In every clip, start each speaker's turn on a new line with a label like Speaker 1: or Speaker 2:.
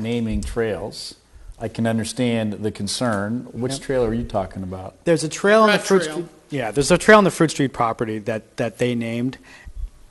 Speaker 1: naming trails. I can understand the concern. Which trail are you talking about?
Speaker 2: There's a trail on the
Speaker 3: Rat
Speaker 2: Fruit
Speaker 3: Trail.
Speaker 2: Street. Yeah, there's a trail on the Fruit Street property that, that they named.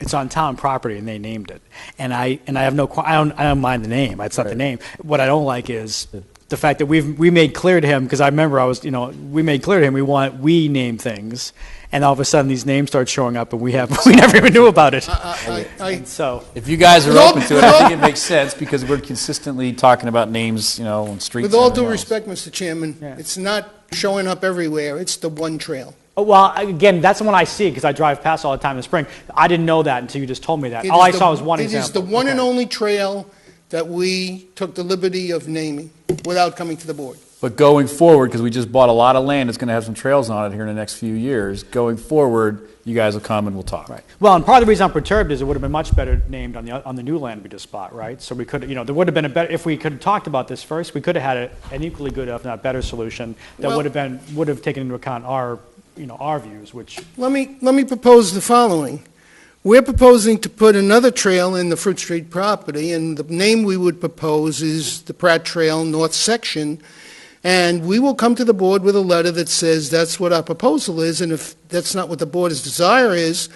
Speaker 2: It's on town property and they named it. And I, and I have no, qu- I don't, I don't mind the name. It's not the
Speaker 1: Right.
Speaker 2: name. What I don't like is the fact that we've, we made clear to him, because I remember I was, you know, we made clear to him, we want, we name things. And all of a sudden these names start showing up and we have, we never even knew about it.
Speaker 3: I, I, I,
Speaker 2: So,
Speaker 1: If you guys are
Speaker 3: With all-
Speaker 1: open to it, I think it makes sense because we're consistently talking about names, you know, and streets.
Speaker 3: with all
Speaker 1: and
Speaker 3: due
Speaker 1: everything else.
Speaker 3: respect, Mr. Chairman,
Speaker 2: Yeah.
Speaker 3: it's not showing up everywhere. It's the one trail.
Speaker 2: oh, well, again, that's the one I see because I drive past all the time in the spring. I didn't know that until you just told me that.
Speaker 3: It
Speaker 2: All
Speaker 3: is
Speaker 2: I
Speaker 3: the-
Speaker 2: saw was one example.
Speaker 3: It is the one and
Speaker 2: Okay.
Speaker 3: only trail that we took the liberty of naming without coming to the board.
Speaker 1: But going forward, because we just bought a lot of land that's going to have some trails on it here in the next few years, going forward, you guys will come and we'll talk.
Speaker 2: Right. Well, and part of the reason I'm perturbed is it would have been much better named on the, on the new land we just bought, right? So we could, you know, there would have been a better, if we could have talked about this first, we could have had a- an equally good, if not better solution that
Speaker 3: Well-
Speaker 2: would have been, would have taken into account our, you know, our views, which,
Speaker 3: Let me, let me propose the following. We're proposing to put another trail in the Fruit Street property, and the name we would propose is the Pratt Trail North Section. And we will come to the board with a letter that says that's what our proposal is, and if that's not what the board's desire is,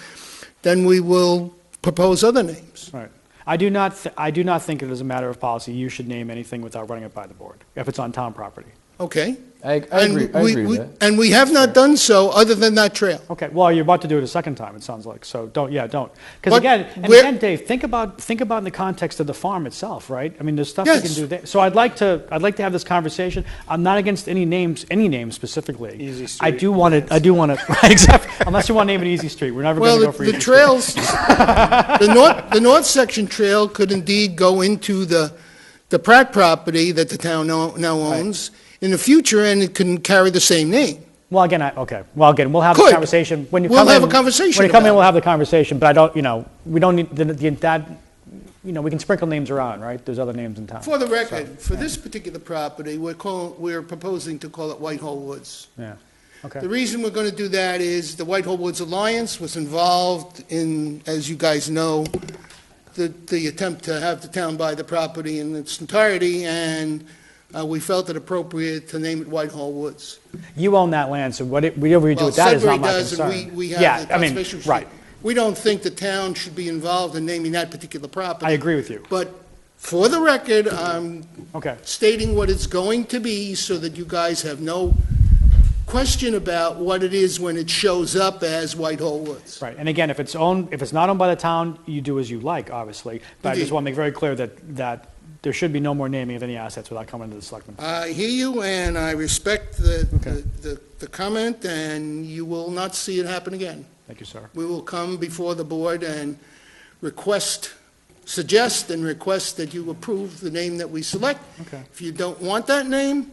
Speaker 3: then we will propose other names.
Speaker 2: right. I do not, th- I do not think it is a matter of policy, you should name anything without running it by the board, if it's on town property.
Speaker 3: Okay?
Speaker 1: I, I
Speaker 3: And
Speaker 1: agree, I
Speaker 3: we-
Speaker 1: agree
Speaker 3: we-
Speaker 1: with that.
Speaker 3: And we have not done so, other than that trail.
Speaker 2: Okay, well, you're about to do it a second time, it sounds like, so don't, yeah, don't. Because
Speaker 3: But
Speaker 2: again, and
Speaker 3: where-
Speaker 2: again, Dave, think about, think about in the context of the farm itself, right? I mean, there's stuff you can
Speaker 3: Yes.
Speaker 2: do there. So I'd like to, I'd like to have this conversation. I'm not against any names, any names specifically. Easy Street. I do want to, I do want to, right, exactly, unless you want to name it Easy Street, we're never
Speaker 3: Well,
Speaker 2: going to go
Speaker 3: the
Speaker 2: for
Speaker 3: the
Speaker 2: Easy Street.
Speaker 3: trails, the north, the north section trail could indeed go into the, the Pratt property that the town now now owns in the future, and it can carry the same name.
Speaker 2: Well, again, I, okay, well, again, we'll have the
Speaker 3: Could.
Speaker 2: conversation. when you
Speaker 3: We'll
Speaker 2: come
Speaker 3: have
Speaker 2: in-
Speaker 3: a conversation
Speaker 2: When you come in,
Speaker 3: about it.
Speaker 2: we'll have the conversation, but I don't, you know, we don't need, the- the- that, you know, we can sprinkle names around, right? There's other names in town.
Speaker 3: For the record, for this particular property, we're call we're proposing to call it Whitehall Woods.
Speaker 2: Yeah, okay.
Speaker 3: The reason we're going to do that is the Whitehall Woods Alliance was involved in, as you guys know, the, the attempt to have the town buy the property in its entirety, and uh, we felt it appropriate to name it Whitehall Woods.
Speaker 2: You own that land, so what it- whatever you do
Speaker 3: Well,
Speaker 2: with that is
Speaker 3: Sudbury
Speaker 2: not my
Speaker 3: does,
Speaker 2: concern.
Speaker 3: and we, we
Speaker 2: Yeah,
Speaker 3: have the
Speaker 2: I mean,
Speaker 3: conservation.
Speaker 2: Right,
Speaker 3: We don't think the town should be involved in naming that particular property.
Speaker 2: I agree with you.
Speaker 3: But for the record, um, I'm
Speaker 2: okay.
Speaker 3: stating what it's going to be so that you guys have no question about what it is when it shows up as Whitehall Woods.
Speaker 2: Right, and again, if it's owned, if it's not owned by the town, you do as you like, obviously. But I just
Speaker 3: Indeed.
Speaker 2: want to make very clear that, that there should be no more naming of any assets without coming to the selectmen.
Speaker 3: I hear you, and I respect the,
Speaker 2: Okay.
Speaker 3: the- the, the comment, and you will not see it happen again.
Speaker 2: Thank you, sir.
Speaker 3: We will come before the board and request, suggest and request that you approve the name that we select.
Speaker 2: Okay.
Speaker 3: If you don't want that name,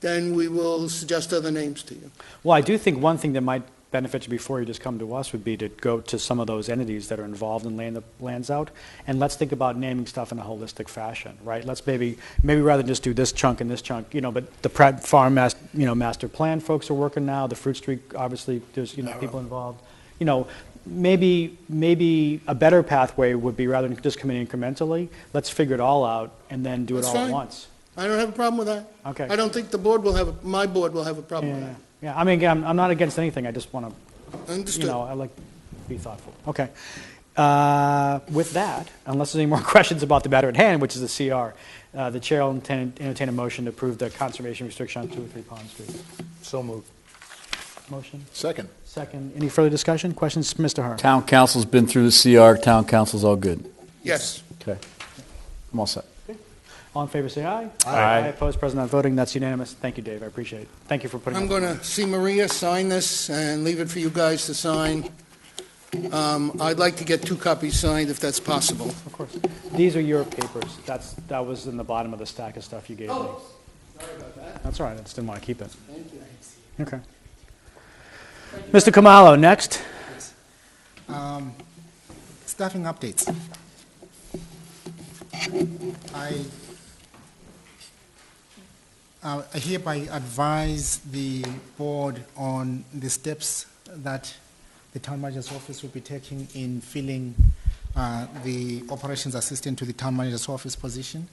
Speaker 3: then we will suggest other names to you.
Speaker 2: Well, I do think one thing that might benefit you before you just come to us would be to go to some of those entities that are involved in laying the lands out, and let's think about naming stuff in a holistic fashion, right? Let's maybe, maybe rather than just do this chunk and this chunk, you know, but the Pratt Farm, mas- you know, master plan folks are working now, the Fruit Street, obviously, there's, you
Speaker 3: Oh,
Speaker 2: know, people involved. You know, maybe, maybe a better pathway would be rather than just coming incrementally, let's figure it all out and then do it
Speaker 3: That's
Speaker 2: all at
Speaker 3: fine.
Speaker 2: once.
Speaker 3: I don't have a problem with that.
Speaker 2: Okay.
Speaker 3: I don't think the board will have, a- my board will have a problem with
Speaker 2: Yeah,
Speaker 3: that.
Speaker 2: yeah, I mean, again, I'm- I'm not against anything, I just want to you
Speaker 3: Understood.
Speaker 2: know, I like to be thoughtful. Okay. Uh, With that, unless there's any more questions about the matter at hand, which is the CR, uh, the chair will entertain entertain a motion to approve the conservation restriction on 203 Pond Street.
Speaker 4: So moved.
Speaker 2: Motion,
Speaker 4: Second.
Speaker 2: second. Any further discussion? Questions, Mr. Hearn?
Speaker 1: Town council's been through the CR, town council's all good.
Speaker 3: Yes.
Speaker 1: Okay. I'm all set.
Speaker 2: All in favor, say aye.
Speaker 1: Aye. Aye.
Speaker 2: Opposed, present not voting. That's unanimous. Thank you, Dave. I appreciate it. Thank you for putting
Speaker 3: I'm
Speaker 2: up-
Speaker 3: going to see Maria sign this and leave it for you guys to sign. Um, I'd like to get two copies signed if that's possible.
Speaker 2: Of course. These are your papers. That's, that was in the bottom of the stack of stuff you gave me. Oh, Sorry about that. That's all right. I just didn't want to keep it. Thank you. Okay. Mr. Kamalo, next.
Speaker 5: Staffing updates. I uh, I hereby advise the board on the steps that the town manager's office will be taking in filling uh, the operations assistant to the town manager's office position.